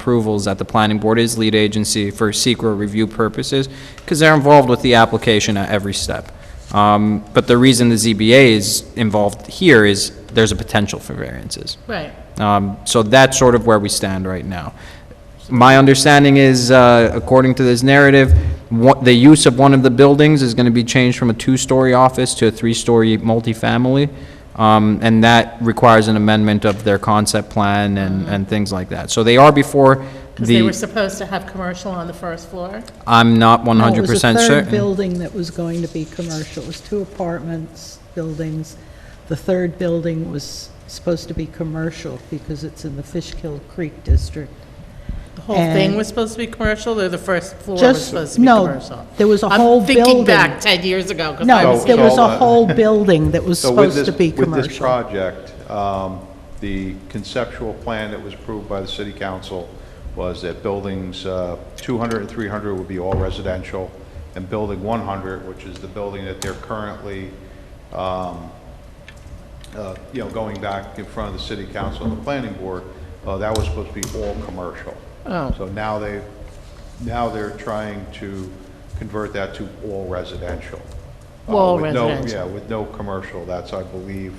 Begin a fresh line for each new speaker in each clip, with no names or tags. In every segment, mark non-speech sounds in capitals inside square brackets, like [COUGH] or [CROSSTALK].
approvals that the planning board is lead agency for secret review purposes, because they're involved with the application at every step. Um, But the reason the ZBA is involved here is there's a potential for variances.
Right.
Um, So that's sort of where we stand right now. My understanding is, uh, according to this narrative, what, the use of one of the buildings is going to be changed from a two-story office to a three-story multifamily, um, and that requires an amendment of their concept plan and, and things like that. So they are before
Because they were
the,
supposed to have commercial on the first floor.
I'm not one
No,
hundred percent
Oh, It was a third
certain.
building that was going to be commercial. It was two apartments, buildings. The third building was supposed to be commercial because it's in the Fishkill Creek District.
The whole thing
And-
was supposed to be commercial, or the first floor was
Just-
supposed to be
no,
commercial?
there was a whole
I'm thinking
building.
back 10 years ago, because I
No,
was
there
here.
was
so,
a
uh, [LAUGHS]
whole building that was
So with
supposed
this,
to be
with this
commercial.
project, um, the conceptual plan that was approved by the city council was that buildings uh, 200 and 300 would be all residential, and building 100, which is the building that they're currently, um, uh, you know, going back in front of the city council and the planning board, uh, that was supposed to be all commercial.
Oh.
So now they, now they're trying to convert that to all residential. Uh,
All
with no-
residential.
Yeah, with no commercial. That's, I believe,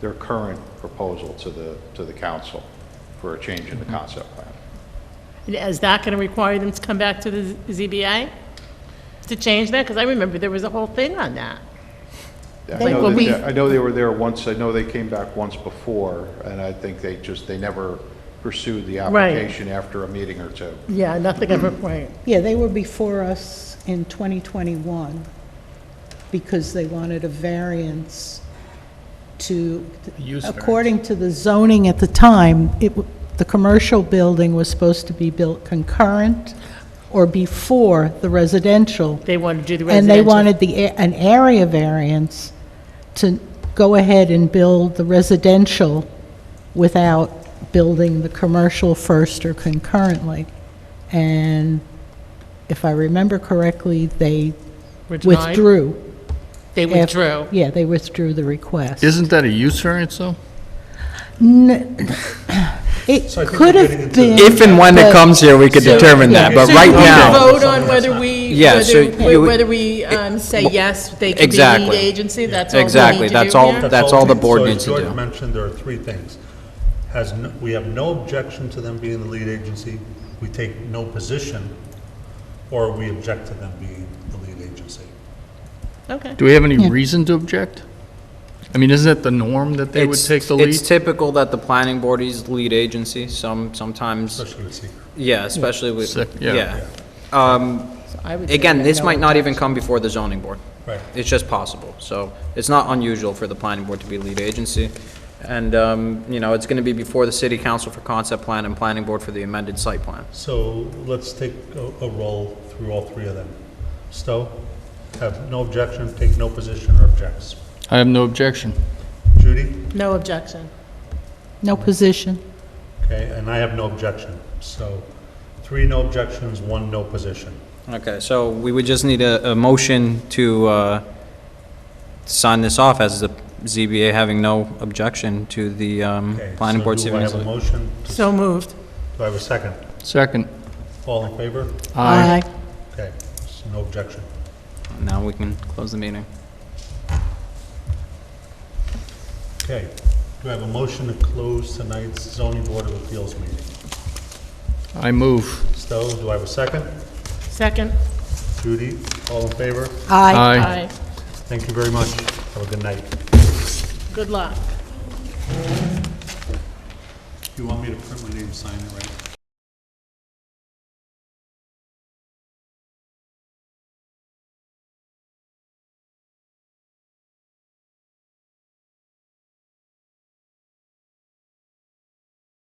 their current proposal to the, to the council for a change in the
Mm-hmm.
concept plan.
Is that going to require them to come back to the Z- ZBA to change that? Because I remember there was a whole thing on that.
I
They-
know
well,
that-
we-
I know they were there once, I know they came back once before, and I think they just, they never pursued the
Right.
application after a meeting or two.
Yeah, nothing ever, right.
Yeah, they were before us in 2021 because they wanted a variance to, according to the zoning at the time, it, w- the commercial building was supposed to be built concurrent or before the residential.
They wanted to do the
And they
residential.
wanted the, a- an area variance to go ahead and build the residential without building the commercial first or concurrently. And if I remember correctly, they
Were denied?
withdrew.
They
af-
withdrew.
Yeah, they withdrew the request.
Isn't that a use variance, though?
N- It could have been.
If and when it
but-
comes here, we could determine that, but
So
right
you want to
now,
vote on whether we,
Yeah, so
whether-
you-
whether we um, say yes, they can be lead
Exactly.
agency? That's all we need
Exactly,
to
that's
do
all-
here?
that- That's all the board
So as
needs to do.
George mentioned, there are three things. Has, no- we have no objection to them being the lead agency, we take no position, or we object to them being the lead agency.
Okay.
Do we have any reason to object? I mean, isn't that the norm that they would
it's,
take the
it's
lead?
typical that the planning board is lead agency, some, sometimes
Especially with secret.
Yeah, especially with,
Sec- yeah.
yeah. Um,
I would say
Again,
we
this
have
might
no
not even come before the zoning board.
Right.
It's just possible. So it's not unusual for the planning board to be lead agency. And, um, you know, it's going to be before the city council for concept plan and planning board for the amended site plan.
So let's take a, a roll through all three of them. Stowe, have no objection, take no position or objects.
I have no objection.
Judy,
No objection.
No position.
okay, and I have no objection. So three no objections, one no position.
Okay, so we would just need a, a motion to, uh, sign this off as the ZBA having no objection to the, um,
Okay,
planning
so
board.
Do I have a
Do
motion?
So moved.
Do I have a second?
Second.
All in favor?
Aye.
Okay, so no objection.
Now we can close the meeting.
Okay, do I have a motion to close tonight's zoning board of appeals meeting?
I move.
Stowe, do I have a second?
Second?
Judy, all in favor?
Aye.
Aye.
Thank you very much. Have a good night.
Good luck.
You want me to print my name, sign it, right?